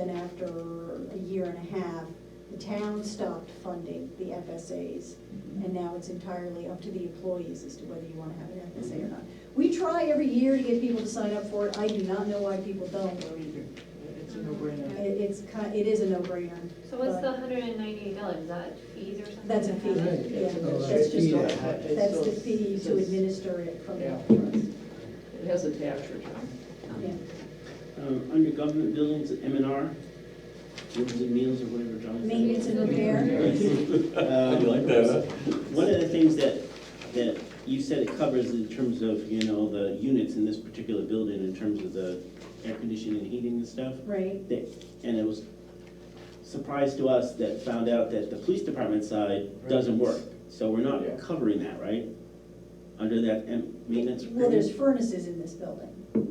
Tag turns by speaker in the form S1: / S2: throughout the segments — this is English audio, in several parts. S1: after a year and a half, the town stopped funding the FSAs, and now it's entirely up to the employees as to whether you wanna have an FSA or not. We try every year to get people to sign up for it, I do not know why people don't.
S2: Or either. It's a no-brainer.
S1: It, it's ki- it is a no-brainer.
S3: So what's the
S1: but
S3: hundred and ninety-eight dollars, is that fees or something?
S1: That's a fee,
S4: Right.
S1: yeah,
S4: Oh,
S1: that's
S4: that's a fee.
S1: just,
S2: just,
S1: that's the fee to administer it from
S2: Yeah.
S1: the,
S2: It has a tax return.
S1: yeah.
S5: Um, Under government buildings, M and R, rooms and meals or whatever John said.
S1: Maintenance and repair,
S5: Um,
S6: You like that,
S5: One of the things that, that you said it covers in terms of, you know, the units in this particular building, in terms of the air conditioning and heating and stuff.
S1: right,
S5: that- And it was surprise to us that found out that the police department side doesn't work. So we're not
S2: Yeah.
S5: covering that, right? Under that um, maintenance.
S1: well, there's
S5: agreement?
S1: furnaces in this building.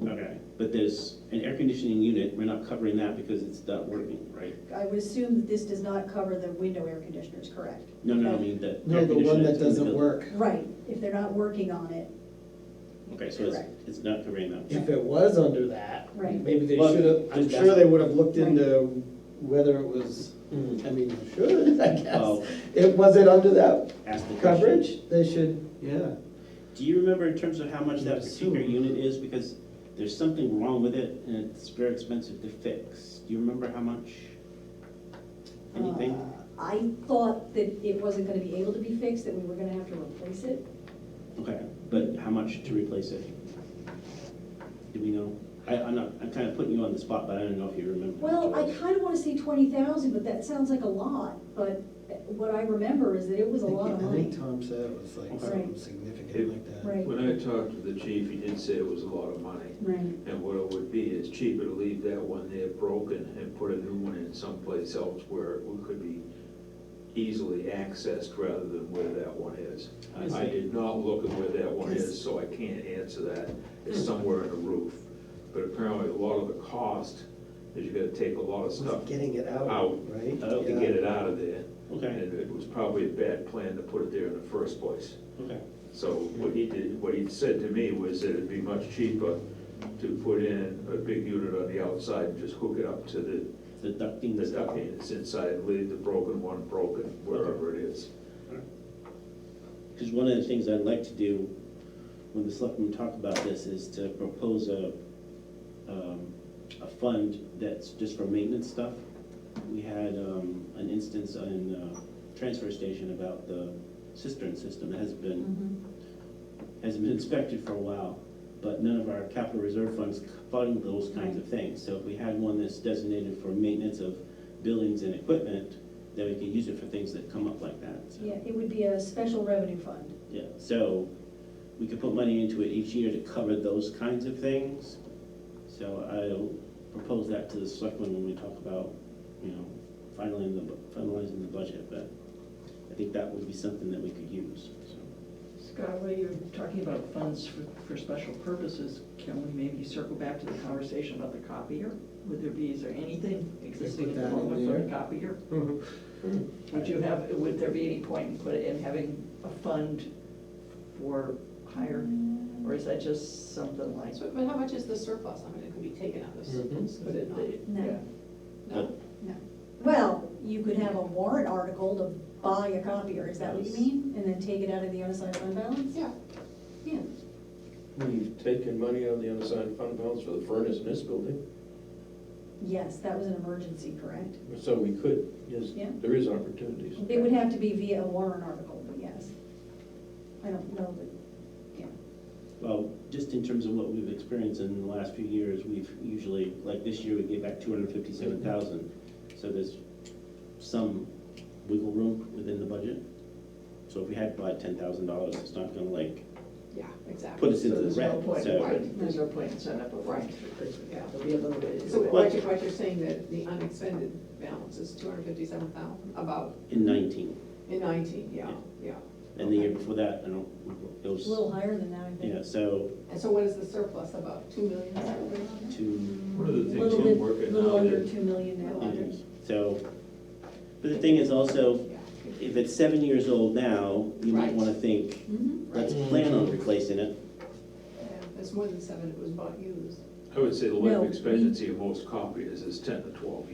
S5: Okay, but there's an air conditioning unit, we're not covering that because it's not working, right?
S1: I would assume that this does not cover the window air conditioners, correct?
S5: No, no, I mean the.
S6: No,
S5: air
S6: the one that
S5: conditioner that's in the
S6: doesn't
S5: building.
S6: work.
S1: Right, if they're not working on it,
S5: Okay, so it's,
S1: Correct.
S5: it's not covering that.
S6: If it was under that,
S1: Right.
S6: maybe they
S5: Well,
S6: should have, I'm
S5: just
S6: sure
S5: ask-
S6: they would have looked into Hmm. whether it was, I mean, they should, I
S5: Oh.
S6: guess. It, was it under that
S5: Ask the question.
S6: coverage? They should, yeah.
S5: Do you remember in terms of how much that particular
S6: Assume.
S5: unit is? Because there's something wrong with it and it's very expensive to fix. Do you remember how much? Anything?
S1: Uh, I thought that it wasn't gonna be able to be fixed, that we were gonna have to replace it.
S5: Okay, but how much to replace it? Do we know? I, I'm not, I'm kind of putting you on the spot, but I don't know if you remember. how
S1: Well,
S5: much
S1: I
S5: it was.
S1: kinda wanna say twenty thousand, but that sounds like a lot, but what I remember is that it was a lot of
S6: I
S1: money.
S6: think Tom said it was like
S5: Okay.
S6: something
S1: Right.
S6: significant like that.
S1: Right.
S7: When I talked to the chief, he did say it was a lot of money.
S1: Right,
S7: And what it would be is cheaper to leave that one there broken and put a new one in someplace else where it could be easily accessed rather than where that one is.
S5: I
S7: I
S5: see.
S7: did not look at where that one
S1: Because-
S7: is, so I can't answer that. It's somewhere in the roof. But apparently, a lot of the cost is you gotta take a lot of
S6: Was it
S7: stuff
S6: getting it out,
S7: Out.
S6: right?
S5: Out
S7: to
S6: Yeah.
S7: get it out of there.
S5: Okay,
S7: And it was probably a bad plan to put it there in the first place.
S5: okay.
S7: So what he did, what he said to me was that it'd be much cheaper to put in a big unit on the outside and just hook it up to the,
S5: The ducting.
S7: the ducting that's inside, leave the broken one broken, wherever it is.
S5: Because one of the things I'd like to do when the selectmen talk about this is to propose a, um, a fund that's just for maintenance stuff. We had, um, an instance on, uh, transfer station about the cistern system that has been, has been inspected for a while, but none of our capital reserve funds fund those kinds of things. So if we had one that's designated for maintenance of buildings and equipment, then we could use it for things that come up like that, so.
S1: yeah, it would be a special revenue fund.
S5: Yeah, so we could put money into it each year to cover those kinds of things. So I'll propose that to the selectmen when we talk about, you know, finalizing the, bu- finalizing the budget, but I think that would be something that we could use, so.
S2: Scott, while you're talking about funds for, for special purposes, can we maybe circle back to the conversation about the copier? Would there be, is there anything existing at
S6: that
S2: the
S6: in
S2: moment for the
S6: there.
S2: copier?
S6: Mhm.
S2: Would you have, would there be any point in put, in having a fund for hire?
S1: Mm-hmm.
S2: Or is that just something like?
S8: So, but how much is the surplus? I mean, it can be taken out
S7: Mm.
S8: of
S9: Mm-hmm.
S8: surplus,
S2: But
S8: could it
S2: it-
S8: not?
S2: it-
S1: No.
S2: yeah.
S8: No?
S1: Well, you could have a warrant article to buy a copier, is that what you mean? And then take it out of the unassigned fund balance?
S8: Yeah.
S1: Yeah,
S9: We've taken money out of the unassigned fund balance for the furnace in this building,
S1: yes, that was an emergency, correct?
S9: so we could, yes,
S1: Yeah.
S9: there is opportunities.
S1: It would have to be via a warrant article, but yes. I don't know, but, yeah.
S5: Well, just in terms of what we've experienced in the last few years, we've usually, like this year, we gave back two hundred and fifty-seven thousand. So there's some wiggle room within the budget. So if we had to buy ten thousand dollars, it's not gonna like
S8: Yeah, exactly.
S5: put us into
S2: So
S5: the
S2: there's no
S5: red,
S2: point,
S5: so.
S2: right, there's no point in setting up a fund.
S8: Right.
S2: Yeah, there'll be a little bit.
S8: So what you're, what you're saying that the unexpended balance is two hundred fifty-seven thousand, about,
S5: In nineteen.
S8: in nineteen, yeah, yeah.
S5: And the year before that, I don't, it
S1: It's a little
S5: was,
S1: higher than that, I think.
S5: yeah, so
S8: And so what is the surplus, about two million? is that what we're on?
S5: two,
S7: One of the things
S1: Little
S7: I'm
S1: bit,
S7: working
S1: little
S7: on
S1: under
S7: is,
S1: two million now.
S5: yeah, so. But the thing is also,
S8: Yeah.
S5: if it's seven years old now, you might
S8: Right.
S5: wanna think,
S1: Mhm.
S5: let's plan on replacing it.
S8: Yeah, That's more than seven, it was bought used.
S7: I would say the
S1: No,
S7: life
S1: we-
S7: expectancy of most copiers is ten to twelve years.